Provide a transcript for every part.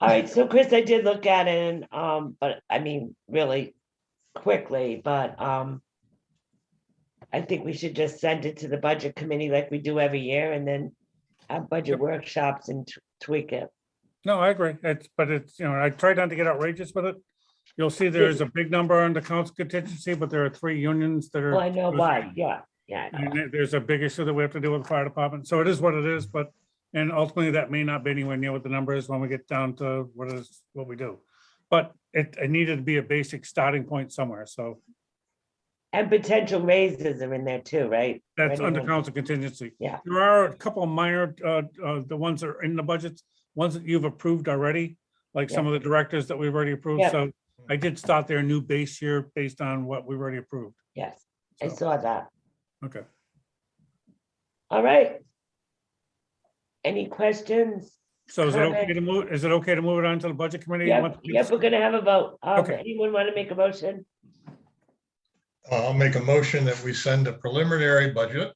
All right, so Chris, I did look at it, and, um, but I mean, really quickly, but, um, I think we should just send it to the budget committee like we do every year and then have budget Yep. workshops and t- tweak it. No, I agree. It's, but it's, you know, I try not to get outrageous with it. You'll see there is a big number on the council contingency, but there are three unions that are. Well, I know why, yeah, yeah. I know. And there- there's a big issue that we have to deal with the fire department. So it is what it is, but, and ultimately that may not be anywhere near what the number is when we get down to what is, what we do. But it, it needed to be a basic starting point somewhere. So And potential raises are in there too, right? That's under Anyone- council contingency. Yeah. There are a couple of minor, uh, uh, the ones that are in the budgets, ones that you've approved already, like some of the directors that we've already approved. Yeah. So I did start their new base year based on what we've already approved. Yes, I So, saw that. okay. All right. Any questions? So is it okay Perfect. to move, is it okay to move it on to the budget committee? Yep, Once we- yep, we're gonna have a vote. Um, Okay. anyone want to make a motion? Uh, I'll make a motion that we send a preliminary budget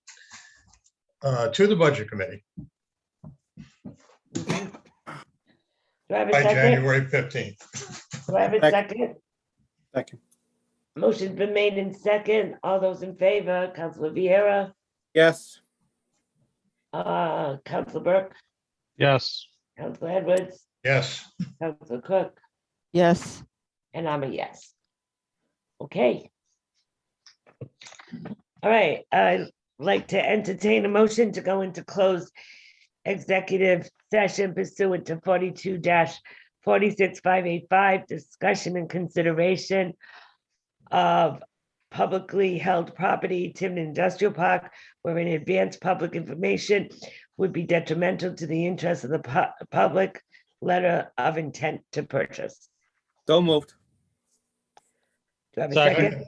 uh, to the Budget Committee Do I have a by second? January 15th. Do I have a second? Second. Motion's been made in second. All those in favor, Counselor Vieira, Yes. uh, Counselor Burke, Yes. Counselor Edwards, Yes, Counselor Cook, Yes, and I'm a yes. Okay. All right, I'd like to entertain a motion to go into closed executive session pursuant to forty-two forty-six five eight five, discussion and consideration of publicly held property, Tiverton Industrial Park, wherein advanced public information would be detrimental to the interest of the pu- public, letter of intent to purchase. So moved. Do I have a Second. second?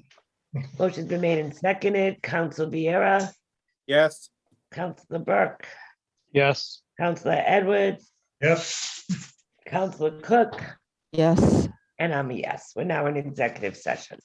Motion's been made and seconded. Council Viera, Yes. Councilor Burke, Yes. Councilor Edwards, yes. Councilor Cook, yes. and I'm a yes. We're now in executive session.